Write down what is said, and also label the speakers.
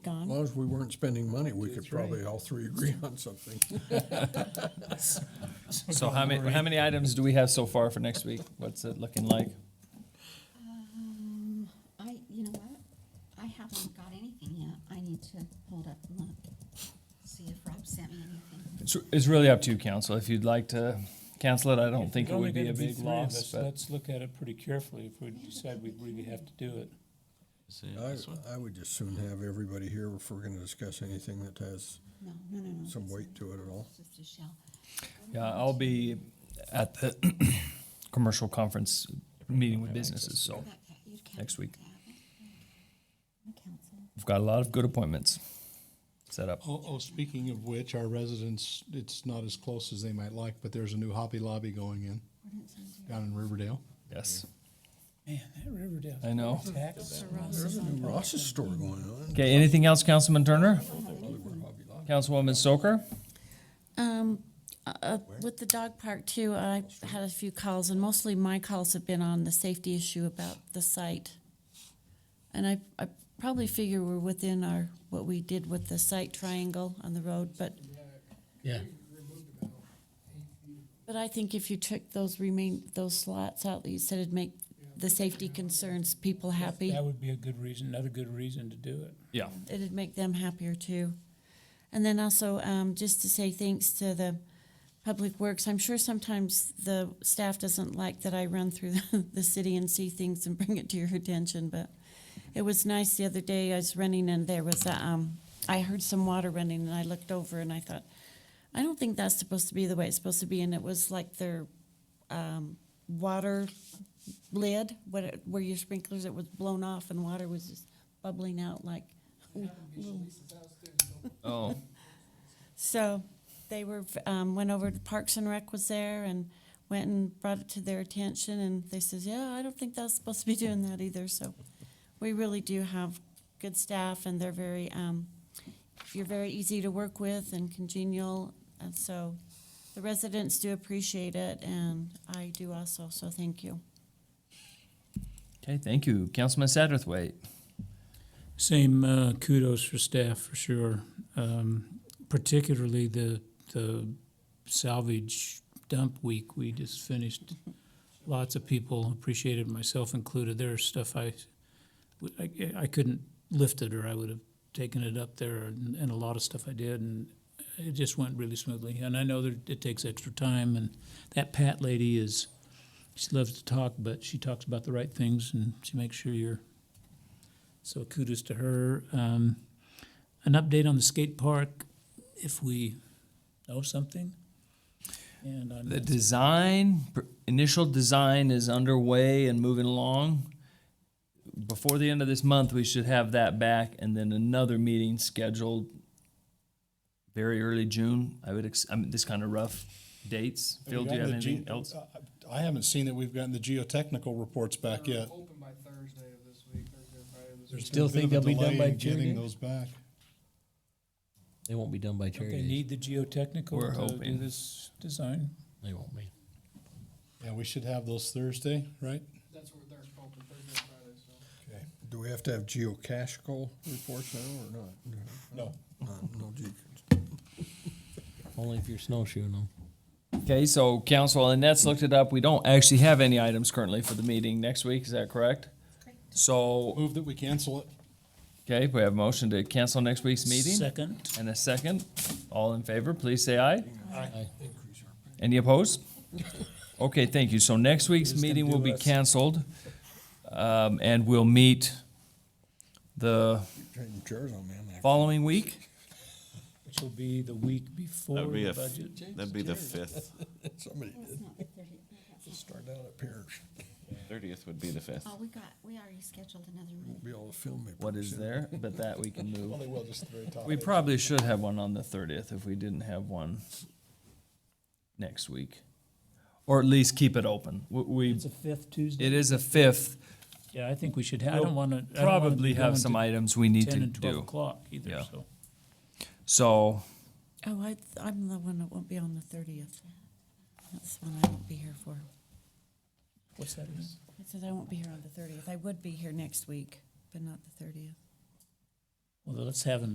Speaker 1: long as we weren't spending money, we could
Speaker 2: That's right.
Speaker 1: probably all three agree on something.
Speaker 3: So how many, how many items do we have so far for next week? What's it looking like?
Speaker 4: Um, I, you know what? I haven't got anything yet. I need to hold up and look, see if Rob sent me anything.
Speaker 3: It's, it's really up to you, council. If you'd like to cancel it, I don't think it
Speaker 2: There's only
Speaker 3: would be
Speaker 2: gonna
Speaker 3: a big
Speaker 2: three of
Speaker 3: loss,
Speaker 2: us.
Speaker 3: but
Speaker 2: Let's look at it pretty carefully if we decide we really have to do it.
Speaker 5: See,
Speaker 1: I,
Speaker 5: this one?
Speaker 1: I would just soon have everybody here if we're gonna discuss anything that has
Speaker 4: No, no, no, no.
Speaker 1: some
Speaker 4: it's
Speaker 1: weight
Speaker 4: not.
Speaker 1: to it at all.
Speaker 4: It's just a shell.
Speaker 3: yeah, I'll be at the commercial conference meeting with businesses, so
Speaker 4: That ca- you'd count
Speaker 3: Next week.
Speaker 4: that. The council.
Speaker 3: we've got a lot of good appointments set up.
Speaker 6: Oh, oh, speaking of which, our residents, it's not as close as they might like, but there's a new Hobby Lobby going in down in Riverdale.
Speaker 3: Yes.
Speaker 2: Man, that Riverdale.
Speaker 3: I know.
Speaker 2: Tax.
Speaker 1: There's a new Ross's store going on.
Speaker 3: Okay, anything else, Councilman Turner? Councilwoman Stoker?
Speaker 7: Um, uh, with the dog park too, I had a few calls and mostly my calls have been on the safety issue about the site. And I, I probably figure we're within our, what we did with the site triangle on the road, but.
Speaker 2: Yeah.
Speaker 7: But I think if you took those remain, those slots out that you said it'd make the safety concerns people happy,
Speaker 2: That would be a good reason, another good reason to do it.
Speaker 3: Yeah.
Speaker 7: it'd make them happier too. And then also, um, just to say thanks to the Public Works, I'm sure sometimes the staff doesn't like that I run through the, the city and see things and bring it to your attention, but it was nice the other day, I was running and there was a, um, I heard some water running and I looked over and I thought, I don't think that's supposed to be the way it's supposed to be, and it was like their, um, water lid, what, it- where your sprinklers, it was blown off and water was just bubbling out like
Speaker 3: Oh,
Speaker 7: So they were, um, went over to Parks and Rec was there and went and brought it to their attention and they says, yeah, I don't think that's supposed to be doing that either, so. We really do have good staff and they're very, um, you're very easy to work with and congenial, and so the residents do appreciate it and I do also, so thank you.
Speaker 3: okay, thank you. Councilman Satterthwaite?
Speaker 2: Same uh, kudos for staff for sure, um, particularly the the salvage dump week we just finished. Lots of people appreciated, myself included. There's stuff I, I, I couldn't lift it, or I would have taken it up there, and, and a lot of stuff I did, and it just went really smoothly. And I know that it takes extra time, and that Pat lady is, she loves to talk, but she talks about the right things, and she makes sure you're so kudos to her. Um, an update on the skate park, if we know something. And on
Speaker 3: The design, pr- initial design is underway and moving along. Before the end of this month, we should have that back and then another meeting scheduled very early June. I would, ex- I mean, this kind of rough dates. Phil, do you have
Speaker 6: We've gotten the
Speaker 3: anything
Speaker 6: geo-
Speaker 3: else?
Speaker 6: Uh, I I haven't seen that we've gotten the geotechnical reports back
Speaker 8: They're
Speaker 6: yet.
Speaker 8: Open by Thursday of this week, Thursday or Friday of this week.
Speaker 6: There's been a
Speaker 9: think
Speaker 6: bit of a
Speaker 9: they'll be done
Speaker 6: delay
Speaker 9: by eh?
Speaker 6: in
Speaker 9: Tuesday?
Speaker 6: Getting those back.
Speaker 9: They won't be done by
Speaker 2: Don't they
Speaker 9: charity.
Speaker 2: need the geotechnical
Speaker 3: We're
Speaker 2: to do
Speaker 3: hoping.
Speaker 2: this design?
Speaker 9: They won't be.
Speaker 6: Yeah, we should have those Thursday, right?
Speaker 8: That's what they're open, Thursday or Friday, so.
Speaker 6: Okay.
Speaker 1: Do we have to have geocachical reports now or not?
Speaker 6: No.
Speaker 1: No, No, geo-
Speaker 9: Only if you're snowshoeing them.
Speaker 3: Okay, so council, Annette's looked it up. We don't actually have any items currently for the meeting next week. Is that correct? So,
Speaker 6: Move that we cancel it.
Speaker 3: okay, we have a motion to cancel next week's meeting
Speaker 2: Second.
Speaker 3: and a second. All in favor, please say aye.
Speaker 9: Aye.
Speaker 3: Any opposed? Okay, thank you. So next week's meeting will be canceled, um, and we'll meet the
Speaker 1: Turn your chairs on, man.
Speaker 3: following week.
Speaker 2: Which will be the week before
Speaker 5: That'd be
Speaker 2: the
Speaker 5: a, f-
Speaker 2: budget.
Speaker 5: that'd be the fifth.
Speaker 1: Somebody
Speaker 4: That's not the 30th.
Speaker 1: start out up here,
Speaker 5: Thirtieth would be the fifth.
Speaker 4: Oh, we got, we already scheduled another meeting.
Speaker 1: be able to film me.
Speaker 3: What is there? But that we can move.
Speaker 6: Probably will, just the very top.
Speaker 3: We probably should have one on the thirtieth if we didn't have one next week. Or at least keep it open. W- We,
Speaker 2: It's a fifth Tuesday.
Speaker 3: it is a fifth.
Speaker 2: Yeah, I think we should, ha- I don't want to.
Speaker 3: Probably have some items we need to
Speaker 2: Ten and twelve
Speaker 3: do.
Speaker 2: o'clock either,
Speaker 3: Yeah.
Speaker 2: so.
Speaker 3: So,
Speaker 7: Oh, I, I'm the one that won't be on the thirtieth. That's the one I won't be here for.
Speaker 2: What's that? again?
Speaker 7: I said I won't be here on the thirtieth. I would be here next week, but not the thirtieth.
Speaker 2: Well, let's have an